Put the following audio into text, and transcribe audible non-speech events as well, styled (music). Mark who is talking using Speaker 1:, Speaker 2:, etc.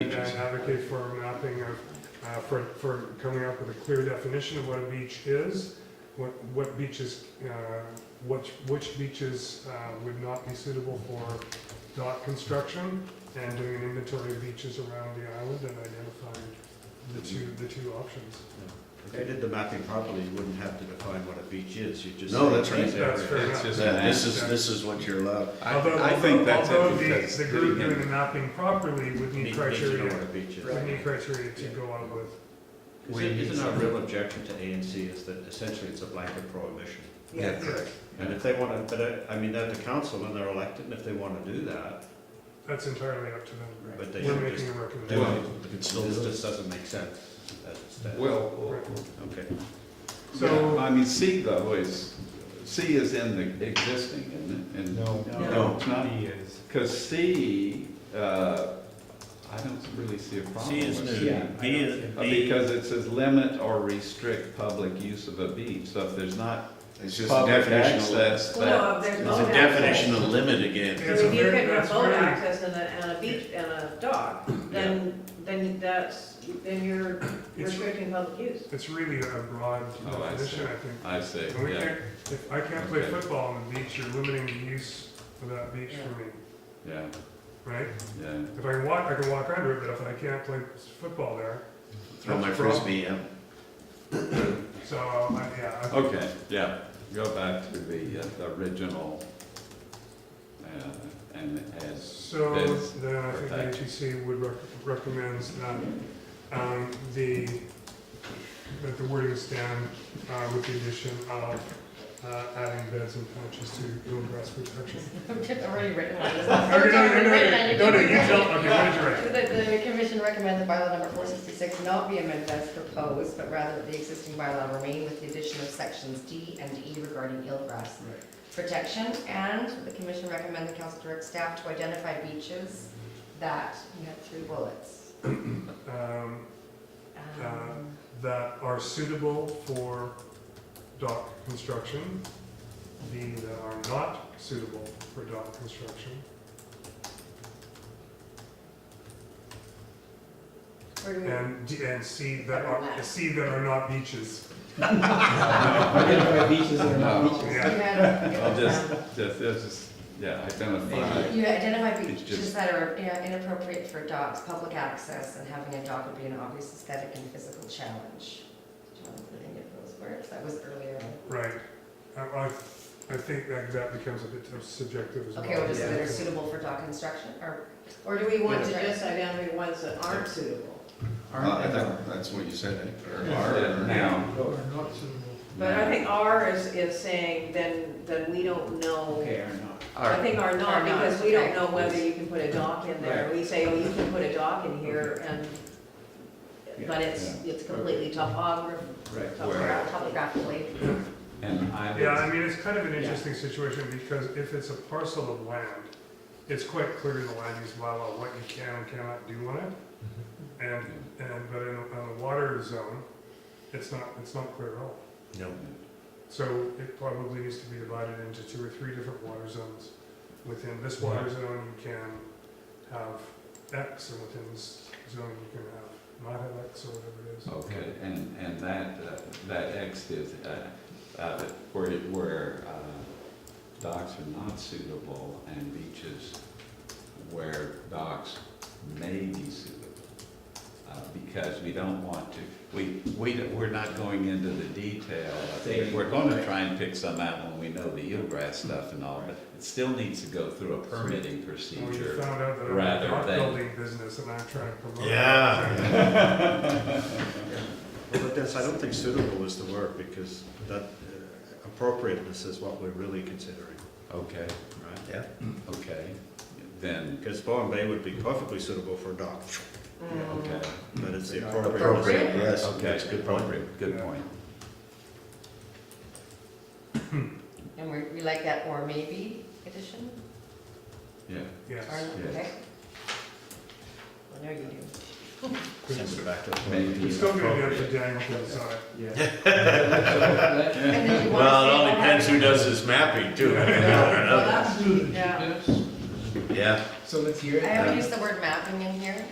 Speaker 1: and advocate for mapping of, uh, for, for coming up with a clear definition of what a beach is, what, what beaches, uh, which, which beaches uh, would not be suitable for dock construction, and doing an inventory of beaches around the island and identifying the two, the two options.
Speaker 2: If they did the mapping properly, you wouldn't have to define what a beach is, you just.
Speaker 3: No,
Speaker 2: say
Speaker 3: that's right.
Speaker 2: beach
Speaker 1: That's
Speaker 2: area.
Speaker 1: fair enough.
Speaker 4: It's just-
Speaker 3: That- This is, this is what you're allowed.
Speaker 1: Although-
Speaker 4: I, I think that's
Speaker 1: although
Speaker 4: it
Speaker 1: the-
Speaker 4: because.
Speaker 1: The group doing the mapping properly would need
Speaker 2: Need- need to know
Speaker 1: criteria,
Speaker 2: what a beach is.
Speaker 1: would need criteria to go on with.
Speaker 2: Isn't- Isn't our real objection to A and C is that essentially it's a blanket prohibition?
Speaker 3: Yeah.
Speaker 1: Correct.
Speaker 2: And if they wanna, but uh, I, I mean, they're the council and they're elected, and if they wanna do that,
Speaker 1: That's entirely up to them.
Speaker 2: but they
Speaker 1: We're
Speaker 2: should just
Speaker 1: making a
Speaker 2: do
Speaker 1: recommendation.
Speaker 2: it. This just doesn't make sense as it stands.
Speaker 4: Well,
Speaker 2: Okay.
Speaker 1: So-
Speaker 4: so, I mean, C though is, C is in the existing, isn't it? And-
Speaker 5: No.
Speaker 3: No.
Speaker 4: it's not,
Speaker 5: D is.
Speaker 4: because C, uh, I don't really see a problem
Speaker 3: C
Speaker 4: with
Speaker 3: is
Speaker 4: C.
Speaker 3: new.
Speaker 4: Uh,
Speaker 3: B is, B,
Speaker 4: Because it says limit or restrict public use of a beach, so if there's not
Speaker 3: it's just a
Speaker 4: public
Speaker 3: definition of limit.
Speaker 4: access, that,
Speaker 6: Well, no, there's
Speaker 3: It's
Speaker 6: no
Speaker 3: a definition of limit
Speaker 1: Yeah.
Speaker 3: again.
Speaker 6: If you can remote access and a, and a beach and a dock, then, then that's, then you're
Speaker 1: It's-
Speaker 6: restricting public use.
Speaker 1: It's really a broad
Speaker 4: Oh, I see.
Speaker 1: definition, I think.
Speaker 4: I see,
Speaker 1: And we
Speaker 4: yeah,
Speaker 1: can't, if I can't play
Speaker 4: Okay.
Speaker 1: football on the beach, you're limiting the use of that beach for me,
Speaker 4: yeah,
Speaker 1: right?
Speaker 4: yeah.
Speaker 1: If I can walk, I can walk under it, but if I can't play football there.
Speaker 3: Throw my
Speaker 1: that's a problem.
Speaker 3: frisbee out.
Speaker 1: So, I- yeah, I-
Speaker 4: Okay, yeah, go back to the, uh, the original, uh, and
Speaker 1: (laughs)
Speaker 4: as,
Speaker 1: so
Speaker 4: Yes.
Speaker 1: then I think the
Speaker 4: Perfect.
Speaker 1: HEC would rec- recommends that, um, the, that the wording stand, uh, with the addition of, uh, adding beds and patches to bluegrass protection.
Speaker 7: I've already written one.
Speaker 1: Okay, no, no, no, no, no, no, you tell, okay, what did you write?
Speaker 7: The, the commission recommended bylaw number four sixty-six not be amended as proposed, but rather the existing bylaw remain with the addition of sections D and E regarding eelgrass protection. And the commission recommend the council direct staff to identify beaches that, you have three bullets.
Speaker 1: Um,
Speaker 7: Um,
Speaker 1: that are suitable for dock construction, B, that are not suitable for dock construction.
Speaker 7: Where do we?
Speaker 1: Uh, And, D- and C that are, C that are not beaches.
Speaker 5: Identify beaches that are not beaches.
Speaker 7: You
Speaker 1: Yeah,
Speaker 7: had-
Speaker 4: I'll just, just, this is, yeah, identify.
Speaker 7: You identify
Speaker 4: It's
Speaker 7: beaches
Speaker 4: just-
Speaker 7: that are you know, inappropriate for dogs, public access, and having a dog would be an obvious aesthetic and physical challenge. Do you want me to think of those words? That was earlier.
Speaker 1: right. I, I, I think that, that becomes a bit of subjective as well.
Speaker 7: Okay, we'll just say they're suitable for dog construction, or, or do we
Speaker 6: You want
Speaker 7: want
Speaker 6: to
Speaker 7: to?
Speaker 6: just identify ones that aren't
Speaker 2: Uh,
Speaker 6: suitable.
Speaker 3: Well, Uh, I thought that's what you said, eh? Or-
Speaker 4: Yeah,
Speaker 3: or-
Speaker 4: Now,
Speaker 6: But I think R is, is saying then, then we don't know.
Speaker 5: Okay, or not.
Speaker 6: I think R
Speaker 7: Are
Speaker 6: not,
Speaker 7: not,
Speaker 6: because we don't
Speaker 7: okay.
Speaker 6: know whether you can put a dock in there. We say, oh, you can put a dock in here and, but it's, it's completely topograph,
Speaker 4: right, where,
Speaker 7: Topogra- Topographically,
Speaker 4: and I
Speaker 1: Yeah, I
Speaker 4: would,
Speaker 1: mean, it's kind of an interesting situation because if it's a parcel of land, it's quite clear in the land use bylaw what you can and cannot do on it. And, and, but in, on the water zone, it's not, it's not clear at all.
Speaker 3: No.
Speaker 1: So it probably needs to be divided into two or three different water zones. Within this water zone, you can have X, and within this zone, you can have not have X or whatever it is.
Speaker 4: okay, and, and that, uh, that X is, uh, uh, where, where, uh, docks are not suitable and beaches where docks may be suitable. Uh, because we don't want to, we, we, don't- we're not going into the detail. I think We're gonna try and pick some out when we know the eelgrass stuff and all, but it still needs to go through a permitting
Speaker 1: When you
Speaker 4: procedure.
Speaker 1: found out that I'm
Speaker 4: rather
Speaker 1: a dock
Speaker 4: than-
Speaker 1: building business and I'm trying to promote. it.
Speaker 3: Yeah.
Speaker 2: Well, But that's, I don't think suitable is the word, because that uh, appropriateness is what we're really considering,
Speaker 4: Okay,
Speaker 2: right?
Speaker 3: Yeah.
Speaker 4: okay, then,
Speaker 2: Because Bowen Bay would be perfectly suitable for a dock,
Speaker 3: Mm.
Speaker 4: okay,
Speaker 2: but it's the appropriateness.
Speaker 3: Appropriate, yes.
Speaker 4: okay,
Speaker 3: That's a
Speaker 4: good
Speaker 3: good point.
Speaker 4: point, good point.
Speaker 7: and we, we like that or maybe addition,
Speaker 4: Yeah,
Speaker 1: Yes.
Speaker 7: or, okay? I know you do.
Speaker 3: (laughs) Send it back to the.
Speaker 4: maybe.
Speaker 1: It's still gonna be up to Daniel to decide.
Speaker 5: Yeah.
Speaker 7: And then you wanna
Speaker 3: Well, it
Speaker 7: say-
Speaker 3: all depends who does this
Speaker 2: (laughs)
Speaker 3: mapping too.
Speaker 7: Well, that's-
Speaker 6: Yeah.
Speaker 3: Yeah.
Speaker 5: So let's hear
Speaker 7: I haven't used the word mapping in here,